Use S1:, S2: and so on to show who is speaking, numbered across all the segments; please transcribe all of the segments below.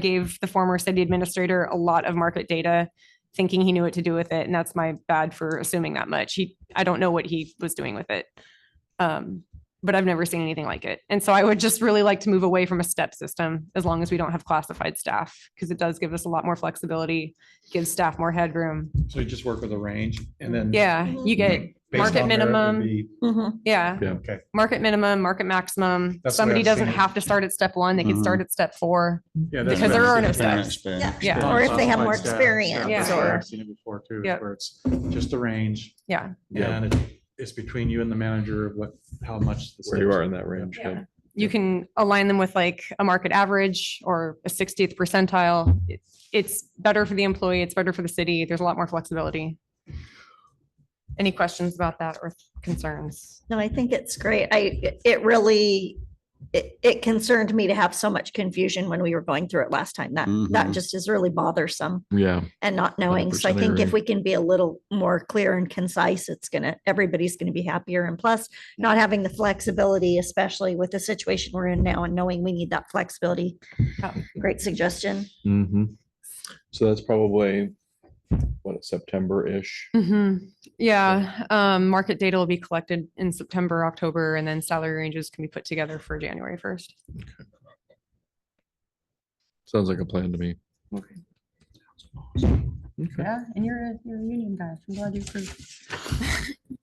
S1: gave the former city administrator a lot of market data, thinking he knew what to do with it, and that's my bad for assuming that much. He, I don't know what he was doing with it. Um, but I've never seen anything like it. And so I would just really like to move away from a step system as long as we don't have classified staff, because it does give us a lot more flexibility, gives staff more headroom.
S2: So you just work with a range and then. Mm-hmm.
S1: Yeah, you get,
S2: based
S1: market
S2: on merit would
S1: minimum.
S2: be-
S1: yeah.
S3: Yeah.
S2: Okay.
S1: Market minimum, market maximum.
S2: That's the way
S1: Somebody
S2: I've
S1: doesn't
S2: seen it. Mm-hmm.
S1: have to start at step one. They can
S3: Mhm.
S1: start at step four.
S3: Yeah,
S1: that's Because what there I are was no thinking. steps.
S4: Yeah.
S1: Yeah.
S4: Or if they have more experience
S1: Yeah.
S4: or-
S2: I've seen it before too,
S1: Yep.
S2: where it's just the range
S1: Yeah.
S3: Yeah.
S2: and it- it's between you and the manager of what, how much. the
S3: Where you
S2: steps-
S3: are in that range.
S1: Yeah.
S3: yeah.
S1: you can align them with like a market average or a 60th percentile. It's, it's better for the employee. It's better for the city. There's a lot more flexibility. Any questions about that or concerns?
S4: No, I think it's great. I, it really, it, it concerned me to have so much confusion when we were going through it last time. That, that
S3: Mhm.
S4: just is really bothersome
S3: Yeah,
S4: and not knowing. So I
S3: 100%
S4: think if
S3: agree.
S4: we can be a little more clear and concise, it's gonna, everybody's gonna be happier. And plus, not having the flexibility, especially with the situation we're in now and knowing we need that flexibility.
S1: Yeah.
S4: Great suggestion.
S3: hmm So that's probably, what, September-ish?
S1: Mhm. Yeah, um, market data will be collected in September, October, and then salary ranges can be put together for January 1st.
S3: Sounds like a plan to me. Okay.
S5: Yeah, and you're a, you're a union guy. I'm glad you approved.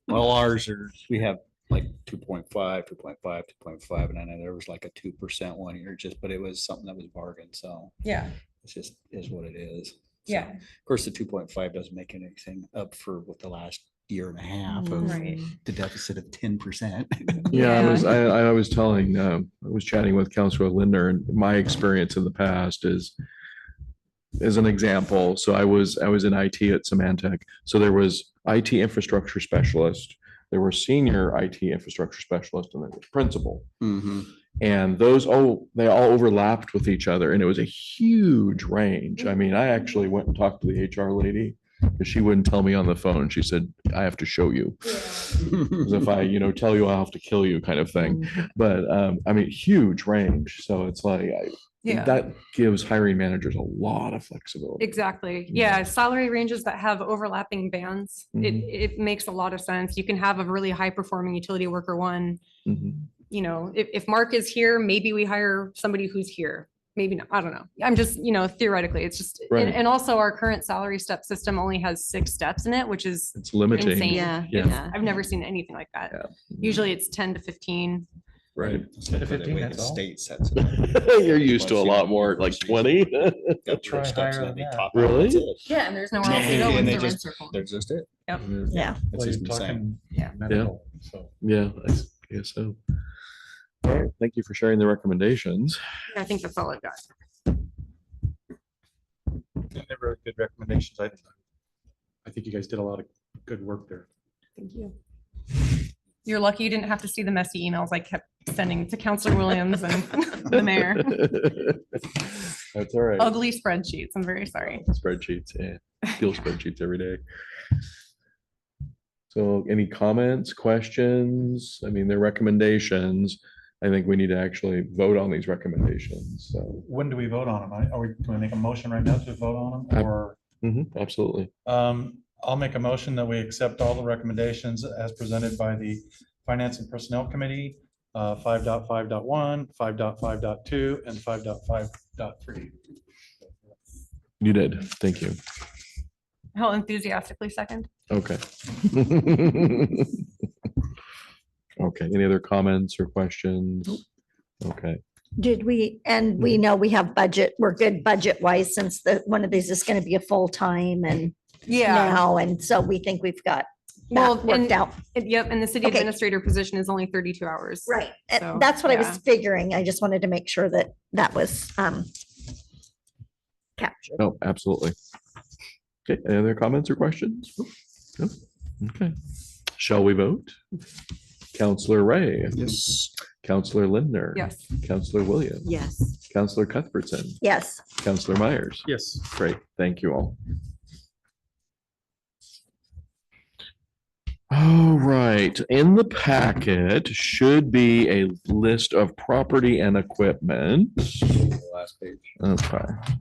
S6: Well, ours are, we have like 2.5, 2.5, 2.5, and I know there was like a two percent one year just, but it was something that was bargained, so
S5: Yeah,
S6: it's just is what it is. So,
S5: yeah.
S6: Of course, the two point five doesn't make anything up for what the last year and a half of
S5: Right.
S6: the deficit of ten percent.
S3: Yeah, I
S1: Yeah.
S3: was, I, I was telling, um, I was chatting with Counselor Linder and my experience in the past is as an example, so I was, I was in IT at Symantec. So there was IT infrastructure specialist, there were senior IT infrastructure specialist and there was principal. Mm-hmm. And those, oh, they all overlapped with each other and it was a huge range. I mean, I actually went and talked to the HR lady. Cause she wouldn't tell me on the phone. She said, I have to show you. 'Cause if I, you know, tell you, I'll have to kill you kind of
S1: Mm-hmm.
S3: thing. But, um, I mean, huge range. So it's like, I, that gives hiring managers a lot of flexibility.
S1: Exactly.
S3: Yeah.
S1: Yeah, salary ranges that have overlapping bands. It,
S3: Mhm.
S1: it makes a lot of sense. You can have a really high performing utility worker one
S3: Mhm.
S1: you know, if, if Mark is here, maybe we hire somebody who's here. Maybe not, I don't know. I'm just, you know, theoretically, it's just,
S3: Right.
S1: and, and also our current salary step system only has six steps in it, which is
S3: It's limiting.
S1: insane.
S3: Yeah.
S1: It's- I've never seen anything like that.
S3: Yeah.
S1: Usually it's ten to fifteen.
S3: Right.
S6: Instead of the
S2: 15,
S6: way the
S2: that's all?
S6: State sets. it.
S3: You're used to a lot more, like twenty.
S6: Go through
S2: Try
S6: the steps
S2: higher
S6: and
S2: than
S6: they
S2: that.
S6: top out.
S3: Really?
S6: That's it.
S1: Yeah, and there's nowhere else to go
S6: And
S1: with
S6: they
S1: the red
S6: just-
S1: circle.
S6: They're just it.
S1: Yep.
S4: Yeah.
S6: It's
S2: Well, you're
S6: just insane.
S2: talking
S5: Yeah.
S2: medical, so.
S3: Yeah, I s- guess so. All right, thank you for sharing the recommendations.
S1: I think that's all I've got.
S2: They were good recommendations. I, I think you guys did a lot of good work there.
S1: Thank you. You're lucky you didn't have to see the messy emails I kept sending to Counselor Williams and the mayor.
S3: That's all right.
S1: Ugly spreadsheets. I'm very sorry.
S3: Spreadsheets, yeah, deal spreadsheets every day. So any comments, questions? I mean, their recommendations. I think we need to actually vote on these recommendations, so.
S2: When do we vote on them? I- Are we, do we make a motion right now to vote on
S3: I-
S2: them or?
S3: Mhm, Absolutely.
S2: Um, I'll make a motion that we accept all the recommendations as presented by the Finance and Personnel Committee, uh, 5.5.1, 5.5.2, and 5.5.3.
S3: You did. Thank you.
S1: How enthusiastically second?
S3: Okay. Okay, any other comments or questions? Okay,
S4: Did we, and
S1: Mm.
S4: we know we have budget, we're good budget wise since the, one of these is gonna be a full time and now, and so we think we've got
S1: Well,
S4: that worked
S1: and-
S4: out.
S1: And- Yep, and the city
S4: Okay.
S1: administrator position is only thirty-two hours.
S4: Right,
S1: so,
S4: and that's what I
S1: yeah.
S4: was figuring. I just wanted to make sure that that was, um, captured.
S3: no, Oh, absolutely. Okay, any other comments or questions? No? Okay, shall we vote? Counselor Ray,
S6: Yes.
S3: Counselor Lindner.
S1: Yes.
S3: Counselor Williams. Yes. Counselor Cuthbertson,
S4: Yes,
S3: Counselor Myers.
S2: Yes.
S3: Great, thank you all. All right, in the packet should be a list of property and equipment.
S6: Last page.
S3: Okay.